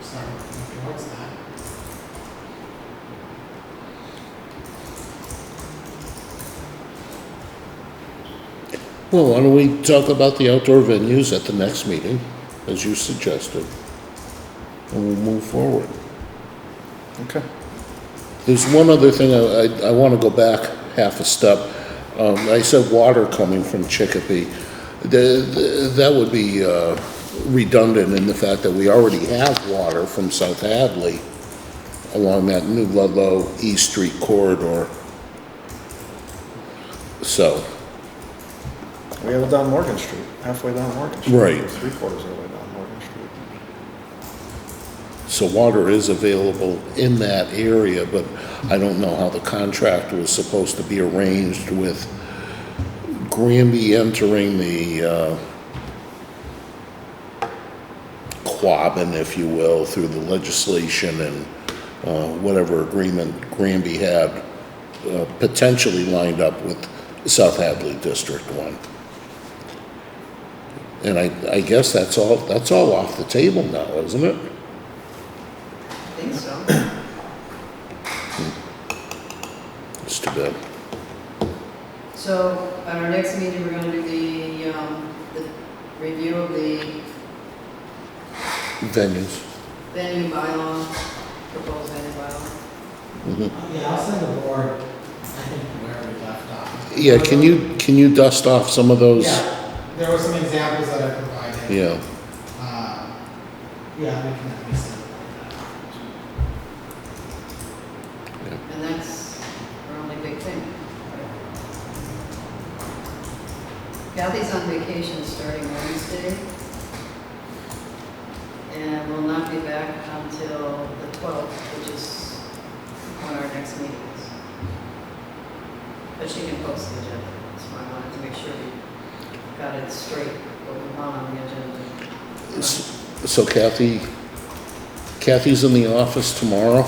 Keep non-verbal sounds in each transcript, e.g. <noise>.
so if it works not. Well, why don't we talk about the outdoor venues at the next meeting, as you suggested? And we'll move forward. Okay. There's one other thing, I, I- I want to go back half a step. Um, I said water coming from Chicopee. The- the- That would be uh, redundant in the fact that we already have water from South Hadley along that new Ludlow East Street corridor. So, We have it down Morgan Street, halfway down Morgan Street. Right. Three quarters of the way down Morgan Street. so water is available in that area, but I don't know how the contract was supposed to be arranged with Granby entering the, uh, Quabbin, if you will, through the legislation and, uh, whatever agreement Granby had uh, potentially lined up with South Hadley District One. And I, I guess that's all, that's all off the table now, isn't it? I think <clears throat> so. It's too bad. So at our next meeting, we're going to do the, um, the review of the Venues. venue bylaw, proposed venue bylaw. Yeah, I'll send the board, I think, where we left off. Yeah, can you, can you dust off some of those? Yeah, there were some examples that I provided. Yeah, Uh, Yeah, we can at least send that. And that's our only big thing. Kathy's on vacation starting Wednesday. And will not be back until the 12th, which is when our next meeting is. But she can post the agenda, that's why I wanted to make sure we got it straight, what we want on the agenda. S- so Kathy, Kathy's in the office tomorrow?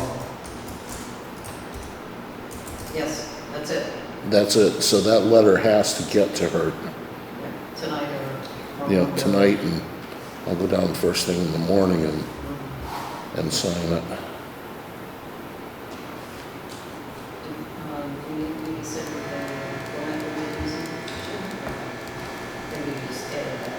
Yes, that's it, That's it, so that letter has to get to her, Yeah, tonight or. or- you know, tonight, and I'll go down first thing in the morning and, and sign it. Um, we need, we need to set the, the language we're using. Maybe we uh, just edit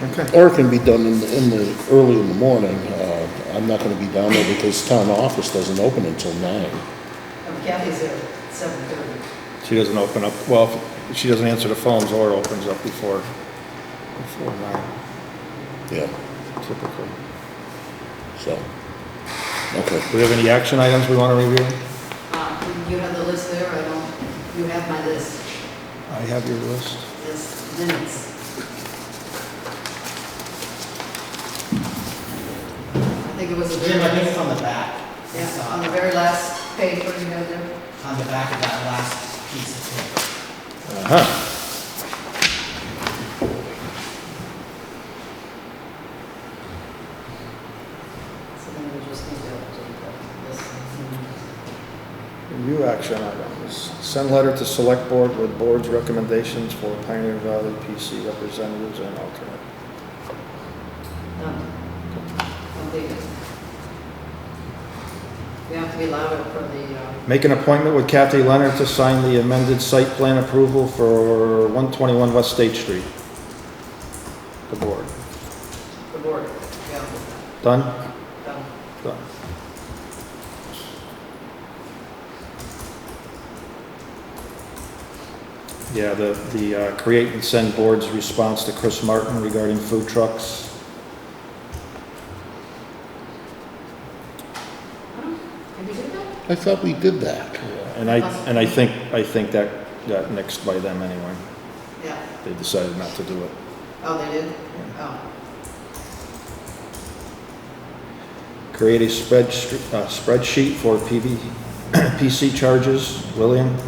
that. Okay. Or it can be done in, the- in the, early in the morning. Uh, I'm not gonna be down there because town office doesn't open until nine. Um, Kathy's there at seven thirty. She doesn't open up, well, if she doesn't answer the phones or opens up before, before nine Yeah, typically. so, okay. Do we have any action items we want to review? Uh, you have the list there, I don't, you have my list, I have your list. this minutes. I think it was the Jim, I very, think it's on the back. It's, yeah, uh, on the very last page, what do you have there? On the back of that last piece of paper. Uh-huh. So then we just need to update that list. Review action items. Send letter to select board with board's recommendations for Pioneer Valley PC representatives and alternate. Done. Completed. We have to be louder for the, uh, Make an appointment with Kathy Leonard to sign the amended site plan approval for 121 West State Street. The board. the board. Yeah, Done? done. Done. Yeah, the, the uh, create and send board's response to Chris Martin regarding food trucks. Did we do that? I thought we did that. And I, and I think, I think that got nixed by them anyway. Yeah. They decided not to do it. Oh, they did? Oh, Create a spread, uh, spreadsheet for PV, <clears throat> PC charges, William. I'm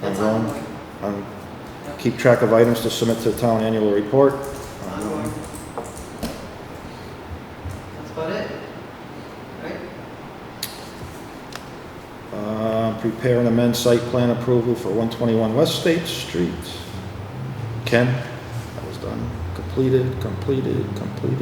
that's wrong. ongoing. Um, keep track of items to submit to the town annual report. Ongoing. That's about it? Right? Uh, prepare and amend site plan approval for one twenty-one West State Street. Ken, that was done, completed, completed, completed.